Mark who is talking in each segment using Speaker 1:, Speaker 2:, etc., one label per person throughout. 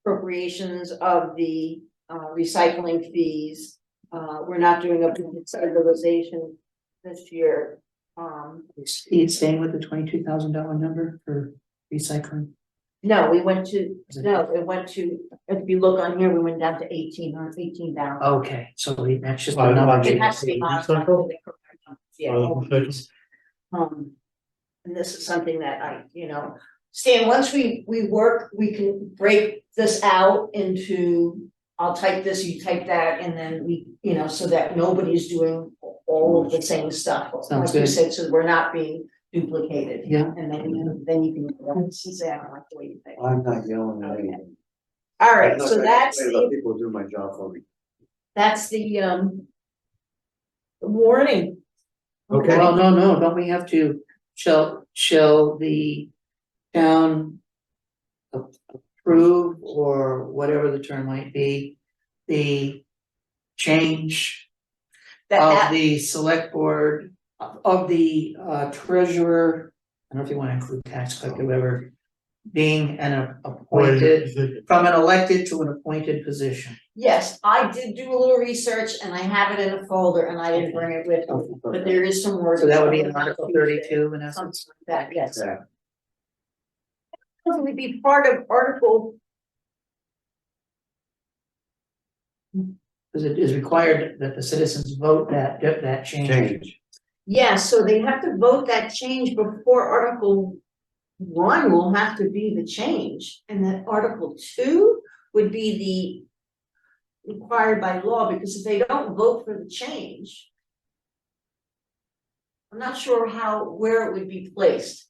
Speaker 1: appropriations of the uh recycling fees. Uh, we're not doing a budget stabilization this year. Um,
Speaker 2: He's staying with the twenty-two thousand dollar number for recycling.
Speaker 1: no, we went to, no, it went to, if you look on here, we went down to eighteen or eighteen thousand.
Speaker 2: Okay, so he- that's just
Speaker 3: Well,
Speaker 2: another.
Speaker 3: okay.
Speaker 1: It has to be modified. to the correct number,
Speaker 3: Are
Speaker 1: Yeah.
Speaker 3: the recycling-
Speaker 1: Um, and this is something that I, you know, Stan, once we, we work, we can break this out into, I'll type this, you type that, and then we, you know, so that nobody's doing all of the same stuff.
Speaker 2: Sounds
Speaker 1: Like you
Speaker 2: good.
Speaker 1: said, so we're not being duplicated.
Speaker 2: Yeah.
Speaker 1: And then, you- then you can, go, this is, I don't like the way you think.
Speaker 3: I'm not yelling at anyone.
Speaker 1: All right, so that's the
Speaker 3: Let people do my job for me.
Speaker 1: That's the um. Warning.
Speaker 3: Okay.
Speaker 2: Well, no, no, don't we have to, shall, shall the town a- approve or whatever the term might be, the change of
Speaker 1: That that,
Speaker 2: the select board, of- of the uh, treasurer, I don't know if you wanna include tax collector, whoever, being an a- appointed, from an elected to an appointed position.
Speaker 1: yes, I did do a little research and I have it in a folder and I didn't bring it with me, but there is some words.
Speaker 2: So that would be in Article thirty-two in
Speaker 1: Something
Speaker 2: essence.
Speaker 1: like that, yes.
Speaker 3: Yeah.
Speaker 1: It would be part of article,
Speaker 2: Because it is required that the citizens vote that, that change.
Speaker 3: Change.
Speaker 1: yes, so they have to vote that change before article. One will have to be the change and then article two would be the. Required by law because if they don't vote for the change. I'm not sure how, where it would be placed.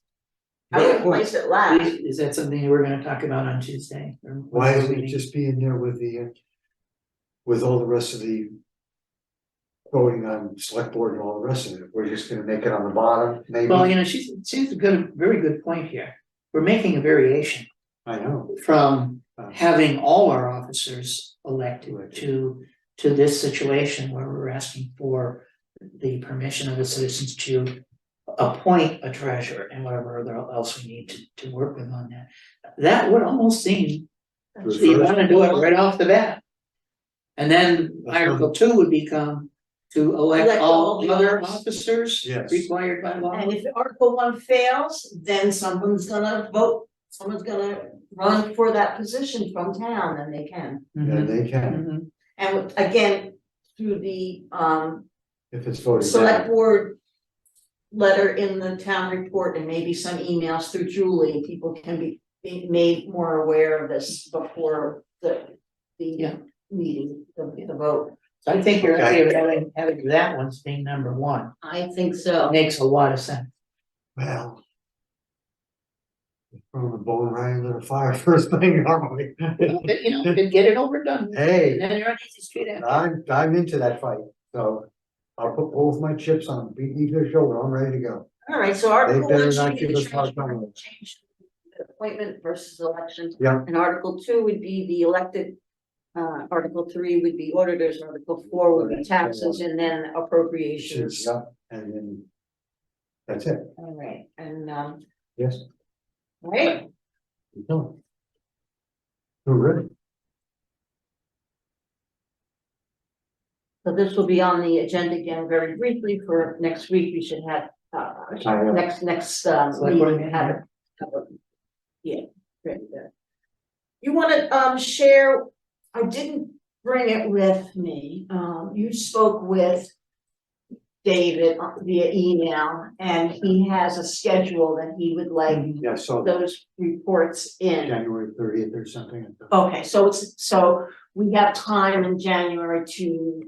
Speaker 1: I would place it last.
Speaker 2: Is is that something we're gonna talk about on Tuesday? or
Speaker 3: Why
Speaker 2: next
Speaker 3: isn't it
Speaker 2: meeting?
Speaker 3: just be in there with the, uh, with all the rest of the voting on select board and all the rest of it, we're just gonna make it on the bottom, maybe?
Speaker 2: Well, you know, she's, she's got a very good point here. We're making a variation
Speaker 3: I know.
Speaker 2: from
Speaker 3: Uh,
Speaker 2: having all our officers elected
Speaker 3: Elected.
Speaker 2: to, to this situation where we're asking for the permission of the citizens to appoint a treasurer and whatever other else we need to, to work with on that. That would almost seem So you wanna do it right off the bat. And then Article two would become to elect
Speaker 1: Elect
Speaker 2: all
Speaker 1: all
Speaker 2: the
Speaker 1: the
Speaker 2: other
Speaker 1: others.
Speaker 2: officers
Speaker 3: Yes.
Speaker 2: required by law.
Speaker 1: And if Article one fails, then someone's gonna vote, someone's gonna run for that position from town and they can.
Speaker 3: Yeah,
Speaker 2: Mhm,
Speaker 3: they can,
Speaker 2: mhm.
Speaker 1: And again, through the um
Speaker 3: if it's voted
Speaker 1: select
Speaker 3: down.
Speaker 1: board. Letter in the town report and maybe some emails through Julie, people can be be made more aware of this before the
Speaker 2: Yeah.
Speaker 1: the meeting, the the vote.
Speaker 2: So I think your
Speaker 3: Okay.
Speaker 2: idea of having, having that one's being number one,
Speaker 1: I think so.
Speaker 2: makes a lot of sense.
Speaker 3: Well. From the bone right into the fire first thing, normally.
Speaker 2: But, you know, then get it over and done, with, and
Speaker 3: Hey,
Speaker 2: then you're on easy street after.
Speaker 3: I'm, I'm into that fight, so I'll put both my chips on, beat me to the shoulder, I'm ready to go.
Speaker 1: Alright, so
Speaker 3: They
Speaker 1: Article
Speaker 3: better
Speaker 1: one
Speaker 3: not
Speaker 1: should be
Speaker 3: give
Speaker 1: the
Speaker 3: us hard
Speaker 1: change,
Speaker 3: time.
Speaker 1: change the appointment versus election.
Speaker 3: Yeah.
Speaker 1: And article two would be the elected. Uh, article three would be auditors, article four would be taxes, and then appropriations.
Speaker 3: Yeah, and then. That's it,
Speaker 1: Alright, and um,
Speaker 3: yes,
Speaker 1: right,
Speaker 3: you know. We're ready.
Speaker 1: so this will be on the agenda again very briefly for next week, we should have. Uh,
Speaker 3: I know.
Speaker 1: next, next um,
Speaker 2: Select board
Speaker 1: meeting,
Speaker 2: meeting,
Speaker 1: have it. have it- Yeah, great, yeah. You wanna um share, I didn't bring it with me, um, you spoke with. David uh, via email, and he has a schedule that he would
Speaker 2: Mm-hmm.
Speaker 1: like
Speaker 3: Yeah, so
Speaker 1: those reports in.
Speaker 3: January thirtieth or something.
Speaker 2: Oh,
Speaker 1: Okay, so it's, so we have time in January to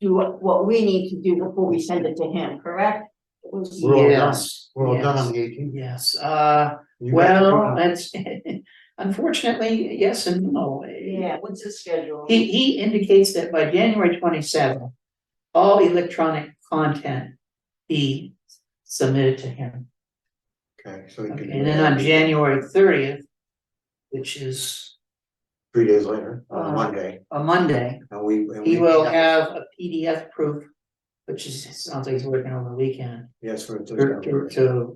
Speaker 1: do what, what we need to do before we send it to him, correct? It was-
Speaker 3: We're all done.
Speaker 2: Yes,
Speaker 3: We're all done
Speaker 2: yes,
Speaker 3: on the eighteenth.
Speaker 2: Yes, uh, well, that's, unfortunately, yes and no.
Speaker 1: Yeah, what's his schedule?
Speaker 2: He, he indicates that by January twenty-seventh, all electronic content be submitted to him.
Speaker 3: Okay, so. you can-
Speaker 2: And then on January thirtieth, which is
Speaker 3: Three days later, on
Speaker 2: Uh,
Speaker 3: Monday,
Speaker 2: a Monday,
Speaker 3: and we. and
Speaker 2: he
Speaker 3: we-
Speaker 2: will have a PDF proof, which is, sounds like he's working over the weekend,
Speaker 3: Yes, we're.
Speaker 2: to, to- to